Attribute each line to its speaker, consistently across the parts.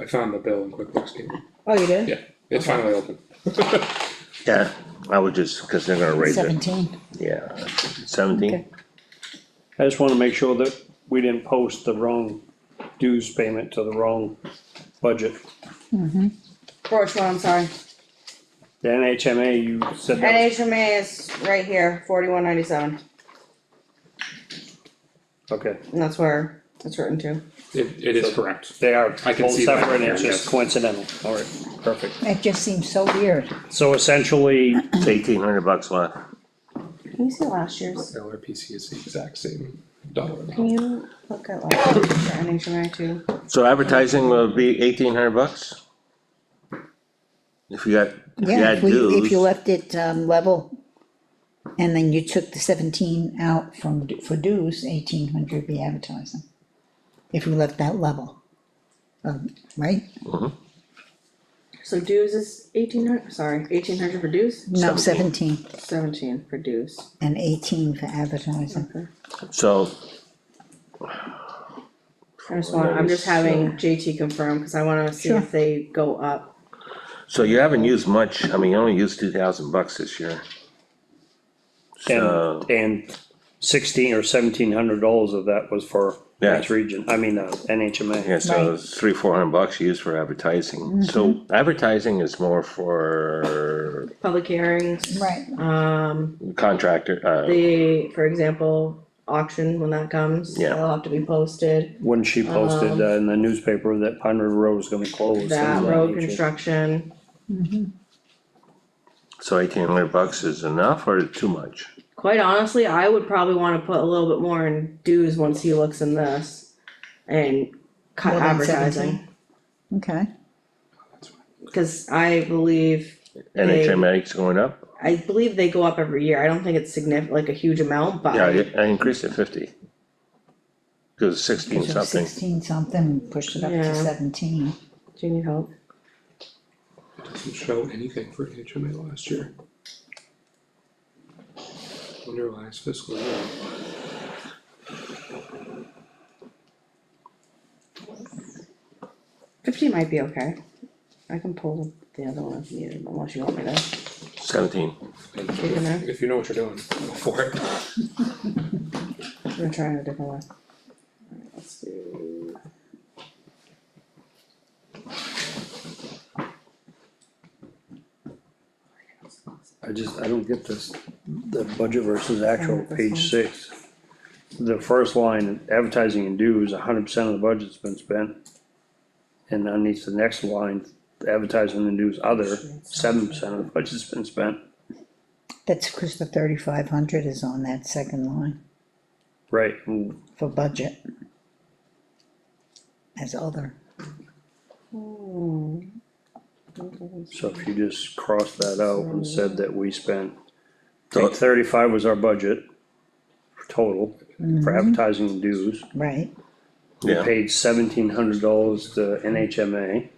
Speaker 1: I found the bill in QuickBooks, David.
Speaker 2: Oh, you did?
Speaker 1: Yeah, it's finally open.
Speaker 3: Yeah, I would just, cause they're gonna raise it,
Speaker 4: Seventeen.
Speaker 3: yeah, seventeen,
Speaker 4: Okay.
Speaker 5: I just wanna make sure that we didn't post the wrong dues payment to the wrong budget.
Speaker 2: For which one, oh I'm sorry.
Speaker 5: The NHMA, you said that,
Speaker 2: NHMA is right here, forty-one ninety-seven,
Speaker 5: was- okay,
Speaker 2: and that's where it's written to.
Speaker 1: It, it is correct.
Speaker 5: they are
Speaker 1: I can
Speaker 5: both
Speaker 1: see that
Speaker 5: separate,
Speaker 1: here,
Speaker 5: it's just
Speaker 1: yes.
Speaker 5: coincidental, alright, perfect.
Speaker 4: That just seems so weird.
Speaker 5: So essentially,
Speaker 3: eighteen hundred bucks left.
Speaker 2: Can you see last year's?
Speaker 1: LRPC is the exact same dollar
Speaker 2: Can
Speaker 1: amount.
Speaker 2: you look at last year's for NHMA too?
Speaker 3: So advertising will be eighteen hundred bucks? If you got, if you
Speaker 4: Yeah,
Speaker 3: had
Speaker 4: if we, if you
Speaker 3: dues,
Speaker 4: left it, um, level. And then you took the seventeen out from, d- for dues, eighteen hundred be advertising. If we left that level. Um, right?
Speaker 2: So dues is eighteen hundred, sorry, eighteen hundred for dues,
Speaker 4: No, seventeen
Speaker 2: seventeen for dues.
Speaker 4: and eighteen for advertising.
Speaker 2: Okay.
Speaker 3: so,
Speaker 2: I just want, I'm just having JT confirm, cause I wanna see
Speaker 4: Sure.
Speaker 2: if they go up.
Speaker 3: so you haven't used much, I mean, you only used two thousand bucks this year. So,
Speaker 5: and, and sixteen or seventeen hundred dollars of that was for
Speaker 3: Yeah.
Speaker 5: Mass Region, I mean, uh, NHMA.
Speaker 3: yeah, so
Speaker 4: Right. Mm-hmm.
Speaker 3: it's three, four hundred bucks you used for advertising, so advertising is more for
Speaker 2: Public hearings,
Speaker 4: Right,
Speaker 2: um,
Speaker 3: contractor, uh,
Speaker 2: the, for example, auction when that comes,
Speaker 3: Yeah.
Speaker 2: it'll have to be posted.
Speaker 5: When she posted uh, in the newspaper that Pine River Road was gonna close. uh, things
Speaker 2: Um, That
Speaker 5: of
Speaker 2: road
Speaker 5: nature.
Speaker 2: construction,
Speaker 3: so eighteen hundred bucks is enough or too much?
Speaker 2: quite honestly, I would probably wanna put a little bit more in dues once he looks in this. And cut
Speaker 4: More than
Speaker 2: advertising,
Speaker 4: 17? okay.
Speaker 2: cause I believe,
Speaker 3: NHMA is going up,
Speaker 2: I believe they go up every year, I don't think it's significant, like a huge amount, but.
Speaker 3: yeah,
Speaker 2: I-
Speaker 3: I- I increased it fifty. Cause sixteen
Speaker 4: So
Speaker 3: something.
Speaker 4: Sixteen something, pushed it up
Speaker 2: Yeah.
Speaker 4: to seventeen.
Speaker 2: Do you need help?
Speaker 1: It doesn't show anything for HMA last year. Under last fiscal year.
Speaker 2: Fifty might be okay. I can pull the other one if needed, unless you want me to.
Speaker 3: Seventeen.
Speaker 1: And
Speaker 2: Taking that?
Speaker 1: If you know what you're doing, go for it.
Speaker 2: I'm gonna try it a different way. Alright, let's do.
Speaker 5: I just, I don't get this, the budget versus
Speaker 2: Oh,
Speaker 5: actual,
Speaker 2: this one.
Speaker 5: page six. The first line, advertising and dues, hundred percent of the budget's been spent. And underneath the next line, advertising and dues other, seven percent of the budget's been spent,
Speaker 4: That's because the thirty-five hundred is on that second line
Speaker 5: right? mm,
Speaker 4: for budget. As other.
Speaker 2: Hmm.
Speaker 5: So if you just cross that out and said that we spent,
Speaker 3: So-
Speaker 5: like thirty-five was our budget total for advertising and dues.
Speaker 4: Right,
Speaker 5: We
Speaker 3: Yeah.
Speaker 5: paid seventeen hundred dollars to NHMA,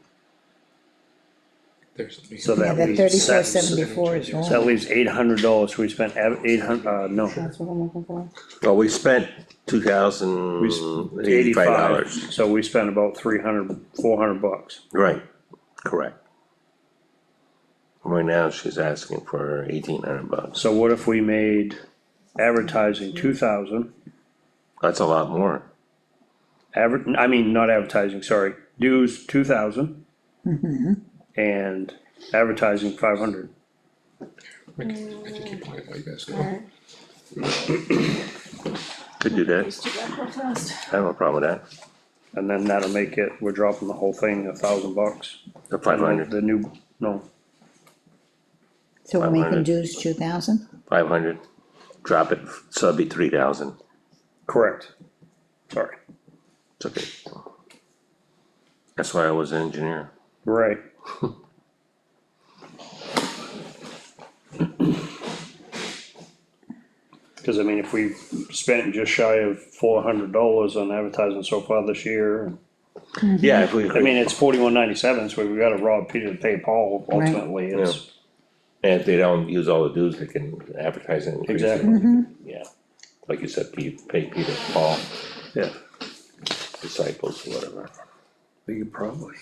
Speaker 1: There's.
Speaker 5: So
Speaker 4: yeah,
Speaker 5: that
Speaker 4: that
Speaker 5: we
Speaker 4: thirty-four
Speaker 5: set-
Speaker 4: seventy-four is
Speaker 5: so
Speaker 4: wrong.
Speaker 5: that leaves eight hundred dollars, we spent eight hundred. uh, no.
Speaker 2: That's what I'm looking for.
Speaker 3: Well, we spent two
Speaker 5: We
Speaker 3: thousand
Speaker 5: spent
Speaker 3: Mm, eighty-five
Speaker 5: eighty-five,
Speaker 3: dollars,
Speaker 5: so we spent about three hundred, four hundred bucks.
Speaker 3: right, correct. Right now, she's asking for eighteen hundred bucks,
Speaker 5: So what if we made advertising two thousand,
Speaker 3: that's a lot more,
Speaker 5: adver, I mean, not advertising, sorry, dues two thousand? And advertising five hundred.
Speaker 1: I can, I can keep playing while you guys go.
Speaker 5: Mm.
Speaker 3: could do that,
Speaker 2: do that real
Speaker 3: I
Speaker 2: fast.
Speaker 3: have no problem with
Speaker 5: And then that'll make it, we're dropping the whole thing a thousand bucks.
Speaker 3: that, the five hundred,
Speaker 5: The new, no,
Speaker 4: So we're making
Speaker 3: 500.
Speaker 4: dues two thousand?
Speaker 3: five hundred, drop it, so it'd be three thousand,
Speaker 5: correct, sorry,
Speaker 3: it's okay. That's why I was an engineer,
Speaker 5: right. Cause I mean, if we spent just shy of four hundred dollars on advertising so far this year,
Speaker 3: yeah, if we,
Speaker 5: I mean, it's forty-one ninety-seven, so we gotta rob Peter to pay Paul ultimately, it's,
Speaker 3: and if they don't use all the dues, they can advertise and increase it.
Speaker 5: Exactly.
Speaker 3: Yeah, like you said, Pete, pay Peter, Paul,
Speaker 5: yeah.
Speaker 3: disciples, whatever.
Speaker 1: We could probably.